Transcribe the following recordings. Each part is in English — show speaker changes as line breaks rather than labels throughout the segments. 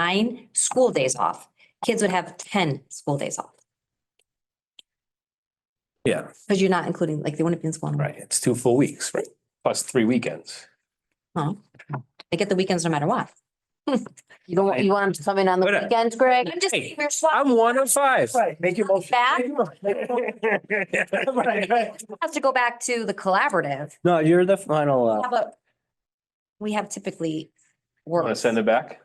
nine school days off. Kids would have ten school days off
Yeah,
because you're not including, like, they wouldn't be in school. anymore.
right. It's two full weeks, right? Plus three weekends.
They get the weekends no matter what.
You don't, want- you want them to come in on the
Wait a-
weekends, Greg?
I'm just,
uh, Hey.
we're swapping
I'm one of five.
Right, make your motion.
back.
Right, right.
Have to go back to the collaborative.
No, you're the final,
How
uh,
about? We have typically
want to
worked
send it back?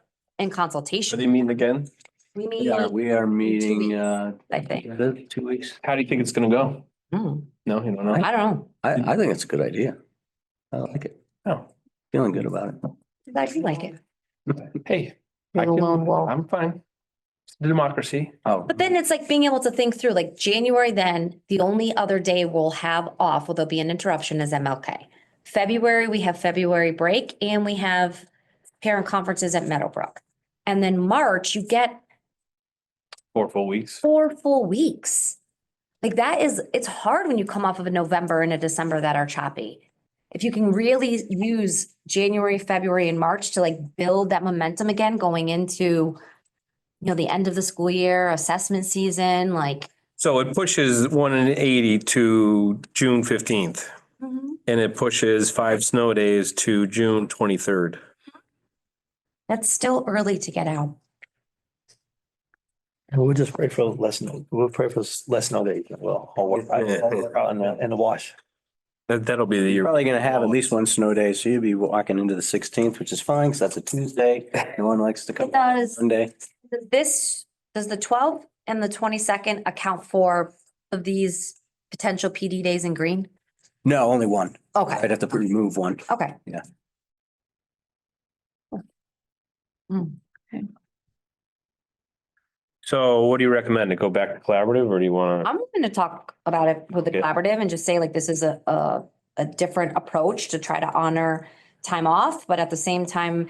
Are
in
they
consultation.
meeting again?
We meet,
Yeah, we are meeting,
weeks.
uh,
I think.
the- two weeks.
How do you think it's gonna go?
Hmm,
No, you don't know?
I don't know.
I, I think it's a good idea. I like it.
Oh,
Feeling good about it.
I feel like it.
hey, I
You're the
can-
lone wolf.
I'm fine. It's Democracy.
Oh,
But then it's like being able to think through, like January, then the only other day we'll have off, well, there'll be an interruption is MLK. February, we have February break and we have parent conferences at Meadowbrook. And then March, you get
Four full weeks.
four full weeks. Like that is, it's hard when you come off of a November and a December that are choppy. If you can really use January, February and March to like build that momentum again going into, you know, the end of the school year, assessment season, like.
So it pushes one and eighty to June fifteenth
Mm-hmm.
and it pushes five snow days to June twenty-third.
That's still early to get out.
We'll just pray for less snow, we'll pray for less snow days, well, I'll work, I'll work out in the, in the wash.
That, that'll be the
you're
year.
probably gonna have at least one snow day, so you'll be walking into the sixteenth, which is fine, because that's a Tuesday. No one likes to come
It does.
Monday.
Does This, does the twelfth and the twenty-second account for of these potential PD days in green?
No, only one.
Okay,
I'd have to remove one.
okay.
So what do you recommend? To go back to collaborative or do you want? to
I'm gonna talk about it with the
Okay.
collaborative and just say like, this is a, a, a different approach to try to honor time off, but at the same time,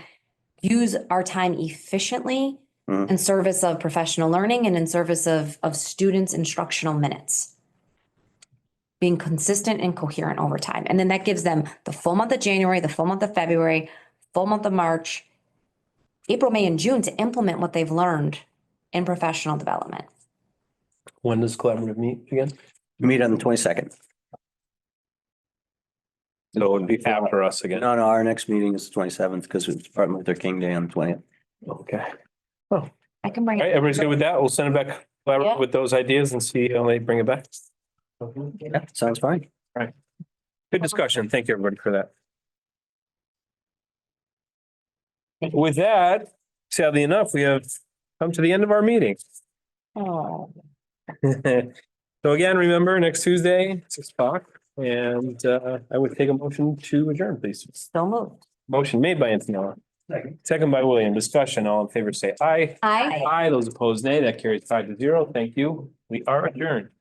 use our time efficiently
Mhm.
in service of professional learning and in service of, of students' instructional minutes. Being consistent and coherent over time. And then that gives them the full month of January, the full month of February, full month of March, April, May, and June to implement what they've learned in professional development.
When does collaborative meet again?
Meet on the twenty-second.
So it'd be after us again.
No, no, our next meeting is the twenty-seventh, because it's Martin Luther King Day on the twentieth.
Okay.
I can bring
All
it.
right, everybody's good with that? We'll send it back
Yeah.
collaborative with those ideas and see how they bring it back. Good
Yeah, sounds fine.
discussion. Thank you, everybody, for that. With that, sadly enough, we have come to the end of our meeting.
Oh,
So again, remember, next Tuesday, six o'clock, and uh, I would take a motion to adjourn, please.
So moved.
Motion made by Antonella. Second by William. Discussion, all in favor, say aye.
Aye.
Aye, those opposed, nay. That carries five to zero. Thank you. We are adjourned.